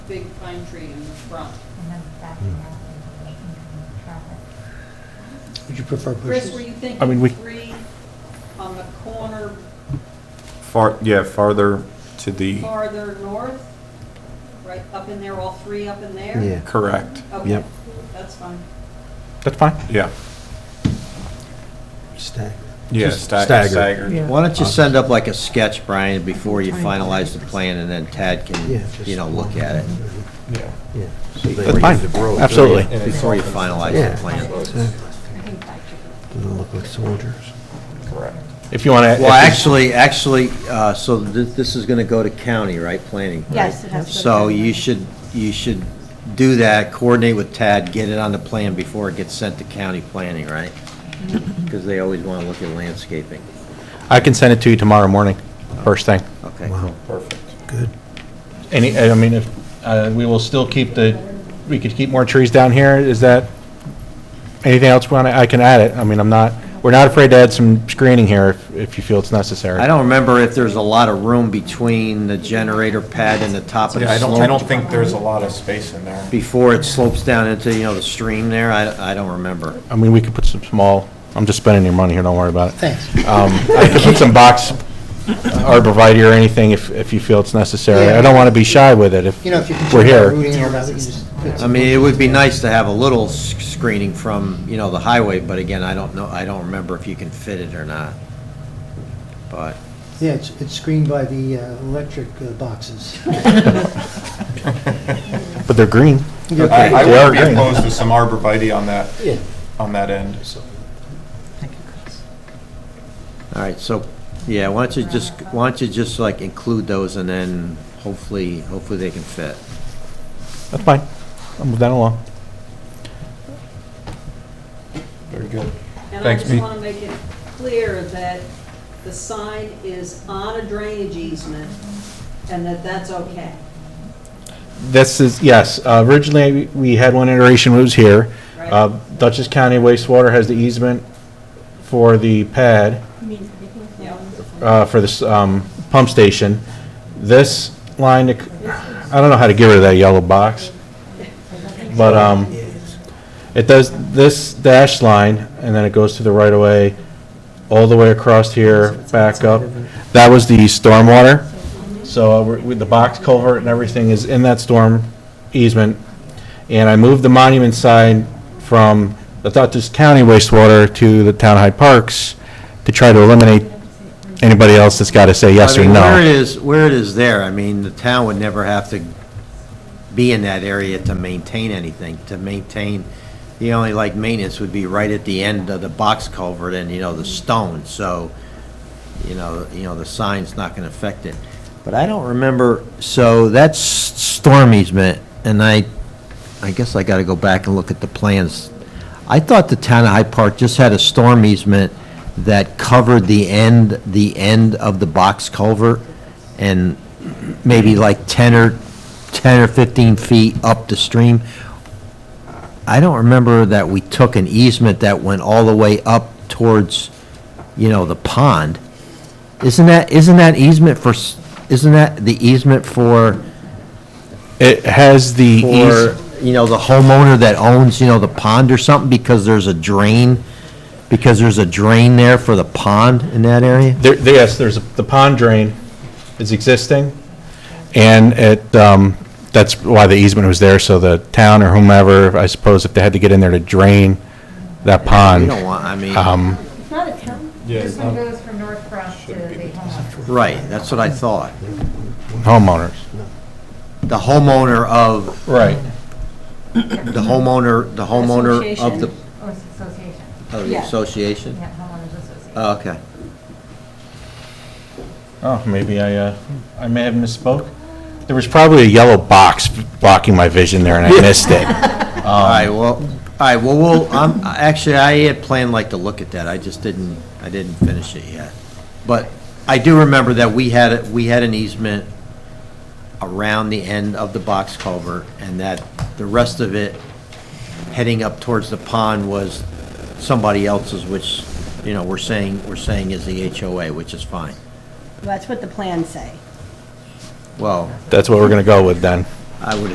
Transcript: big pine tree in the front. And then backing out and making traffic. Would you prefer Chris, were bushes? you I mean, we- thinking three on the corner Far, yeah, farther to the, farther north? Right up in there, all three up in there? Yeah. correct, Okay, Yep. that's fine. That's fine. yeah. Stagger. Yeah, Just sta- staggered. staggered. Why don't you send up like a sketch, Brian, before you finalize the plan, and then Tad Yeah, can, just- you know, look at it, Yeah. Yeah. That's fine, absolutely. before you finalize Yeah. the plan. I think that should be. Doesn't look like soldiers. Correct. If you want to. Well, actually, actually, uh, so thi- this is gonna go to county, right, planning? right? Yes, it has to go to So county. you should, you should do that, coordinate with Tad, get it on the plan before it gets sent to county planning, right? Mm-hmm. Because they always wanna look at landscaping. I can send it to you tomorrow morning, first thing. Okay, Wow, Perfect. good. Any, I mean, if, uh, we will still keep the, we could keep more trees down here, is that, anything else we want, I can add it, I mean, I'm not, we're not afraid to add some screening here if, if you feel it's necessary. I don't remember if there's a lot of room between the generator pad and the top of Yeah, the I don't, I don't slope, think there's a lot of space in there. before it slopes down into, you know, the stream there, I, I don't remember. I mean, we could put some small, I'm just spending your money here, don't worry about it. Thanks. Um, I could put some box arborvitae or anything if, if you feel it's necessary. I don't want to be shy with it if You know, if you can we're check out here. routing and all that, we can just put I mean, it would be nice to have a little s- screening from, you know, the highway, but again, I don't know, I don't remember if you can fit it or not. But, Yeah, it's, it's screened by the uh, electric uh, boxes. But they're green. I, I They are would be green. opposed to some arborvitae on that, Yeah. on that end. all right, so, yeah, why don't you just, why don't you just like include those and then hopefully, hopefully they can fit. That's fine. I'll move that along. Very good. And I Thanks, just Pete. want to make it clear that the sign is on a drainage easement and that that's okay. This is, yes, uh, originally, we had one iteration, it was here. Right. Uh, Dutchess County wastewater has the easement for the pad, Yep. uh, for this um, pump station. This line, I don't know how to get rid of that yellow box, but um, it does, this dash line, and then it goes to the right-of-way, all the way across here, back up. That was the stormwater. So uh, we're- with the box culvert and everything is in that storm easement. And I moved the monument sign from the Dutchess County wastewater to the Town High Parks to try to eliminate anybody else that's got to say yes I or mean, Where it no. is, where it is there, I mean, the town would never have to be in that area to maintain anything, to maintain, the only like maintenance would be right at the end of the box culvert and, you know, the stone, so, you know, you know, the sign's not gonna affect it. But I don't remember, so that's storm easement, and I, I guess I gotta go back and look at the plans. I thought the town of Hyde Park just had a storm easement that covered the end, the end of the box culvert and maybe like 10 or, 10 or 15 feet up the stream. I don't remember that we took an easement that went all the way up towards, you know, the pond. Isn't that, isn't that easement for, s- isn't that the easement for, It has the for, eas, you know, the homeowner that owns, you know, the pond or something because there's a drain? Because there's a drain there for the pond in that area? there, there- yes, there's, a- the pond drain is existing, and it, um, that's why the easement was there, so the town or whomever, I suppose, if they had to get in there to drain that We pond, don't want, I mean. um, It's not a town. Yeah, um, This it's one not- goes from North Cross to the homeowner. Right, that's what I thought. homeowners. The homeowner of, Right. the homeowner, the homeowner of the, Or it's association. of the Yeah. association? Yeah, homeowners association. Oh, okay. Oh, maybe I, uh, I may have misspoke. There was probably a yellow box blocking my vision there, and I missed it. All right, well, all right, well, we'll, I'm, actually, I had planned like to look at that, I just didn't, I didn't finish it yet. But I do remember that we had, a- we had an easement around the end of the box culvert, and that the rest of it heading up towards the pond was somebody else's, which, you know, we're saying, we're saying is the HOA, which is fine. That's what the plans say. Well, That's what we're gonna go with then. I would